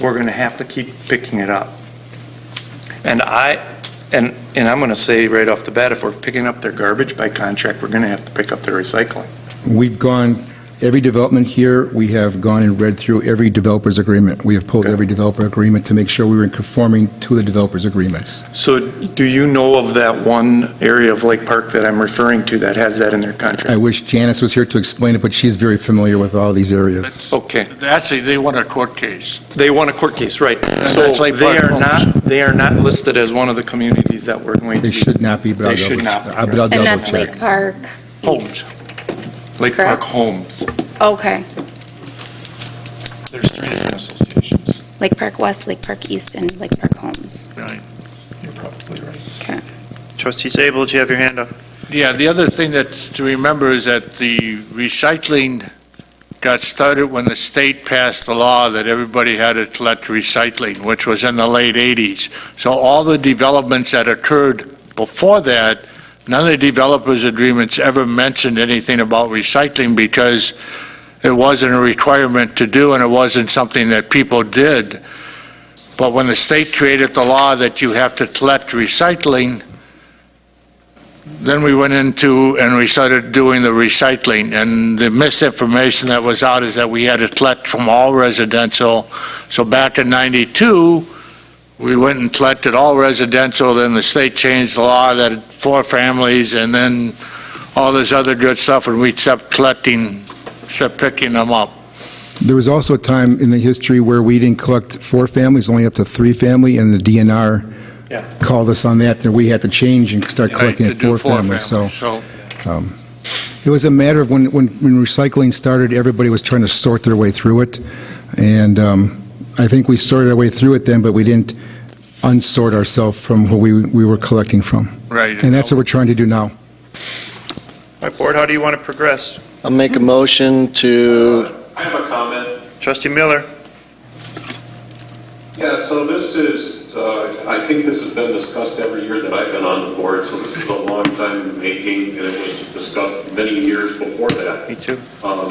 we're going to have to keep picking it up. And I, and, and I'm going to say right off the bat, if we're picking up their garbage by contract, we're going to have to pick up their recycling. We've gone, every development here, we have gone and read through every developer's agreement. We have pulled every developer agreement to make sure we were conforming to the developer's agreements. So do you know of that one area of Lake Park that I'm referring to that has that in their I contract? wish Janice was here to explain it, but she's very familiar with all these areas. Okay, Actually, they won a court case. they won a court case, right. So that's Lake they Park are not, Homes. they are not listed as one of the communities that we're going to They be. should not be, but I'll They should double not check. be, I- But I'll right. double And that's Lake check. Park Homes. East. Lake Park correct? Homes. Okay, There's three different associations. Lake Park West, Lake Park East, and Lake Park Homes. You're probably right. Okay. Trustee Zabel, did you have your hand up? Yeah, the other thing that's to remember is that the recycling got started when the state passed the law that everybody had to collect recycling, which was in the late 80s. So all the developments that occurred before that, none of the developers' agreements ever mentioned anything about recycling because it wasn't a requirement to do and it wasn't something that people did. But when the state created the law that you have to collect recycling, then we went into and we started doing the recycling, and the misinformation that was out is that we had it collect from all residential. So back in 92, we went and collected all residential, then the state changed the law that it- four families, and then all this other good stuff, and we kept collecting, kept picking them up. There was also a time in the history where we didn't collect four families, only up to three family, and the DNR Yeah. called us on that, and we had to change and start collecting To at do four families, so. So, Um, It was a matter of when, when when recycling started, everybody was trying to sort their way through it, and um, I think we sorted our way through it then, but we didn't unsort ourselves from what we, we were collecting from. right. And that's what we're trying to do now. All right, board, how do you want to progress? I'll make a motion to, I have a comment. Trustee Miller? Yeah, so this is, uh, I think this has been discussed every year that I've been on the board, so this is a long time in the making, and it was discussed many years before that. Me too. Um,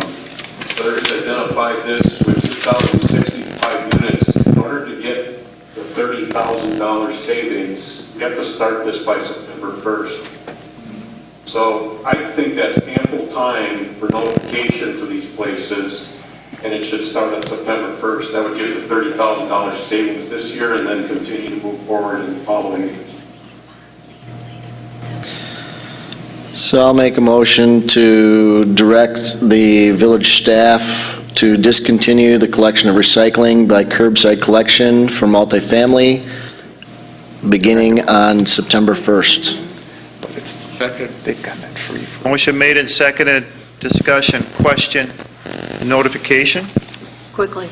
Others identified this with 2,065 units. In order to get the $30,000 savings, we have to start this by September 1st. So I think that's ample time for notification to these places, and it should start on September 1st. That would give the $30,000 savings this year and then continue to move forward in the following years. so I'll make a motion to direct the village staff to discontinue the collection of recycling by curbside collection for multifamily beginning on September 1st. But it's, Second. they've got that free for. Motion made and seconded, discussion, question, notification? Quickly.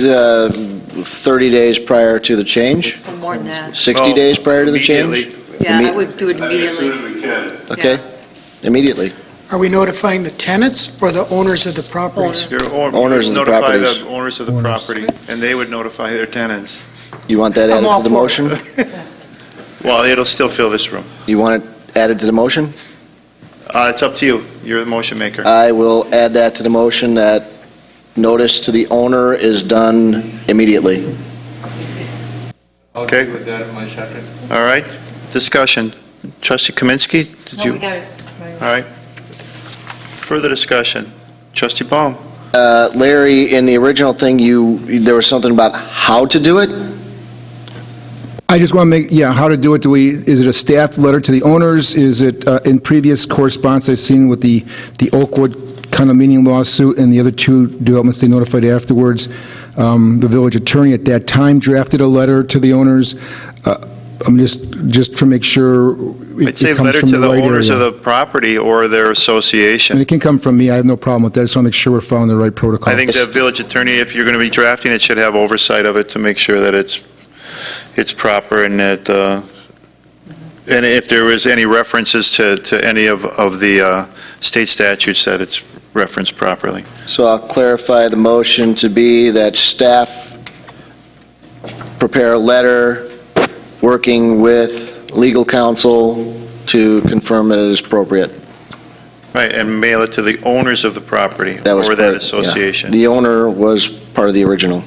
Uh, 30 days prior to the change? More than that. 60 Well, days prior to the change? immediately. Yeah, I Imme- would do it I think as soon as immediately. we can. Okay, immediately. Are we notifying the tenants or the owners of the properties? Owner. Your own- Owners of the Notify properties. the owners of the Owners. property, and they would notify their tenants. You want that I'm added all to the for it. motion? Well, it'll still fill this room. You want it added to the motion? Uh, It's up to you, you're the motion maker. I will add that to the motion, that notice to the owner is done immediately. Okay. With that, my second. All right, discussion. Trustee Kaminsky, did No, we you, got it. all right. Further discussion. Trustee Baum? Uh, Larry, in the original thing, you, there was something about how to do it? I just want to make, yeah, how to do it, do we, is it a staff letter to the owners? Is it, uh, in previous correspondence I've seen with the, the Oakwood condominium lawsuit and the other two developments they notified afterwards, um, the village attorney at that time drafted a letter to the owners. Uh, I'm just, just to make sure it I'd it say comes from the right letter to the owners area. of the property or their association. And it can come from me, I have no problem with that, I just want to make sure we're following the right protocol. I think the village attorney, if you're going to be drafting it, should have oversight of it to make sure that it's, it's proper and that, uh, and if there is any references to, to any of, of the uh, state statutes, that it's referenced properly. So I'll clarify the motion to be that staff prepare a letter working with legal counsel to confirm that it is appropriate. Right, and mail it to the owners of the property That was or part- that yeah. association. The owner was part of the original.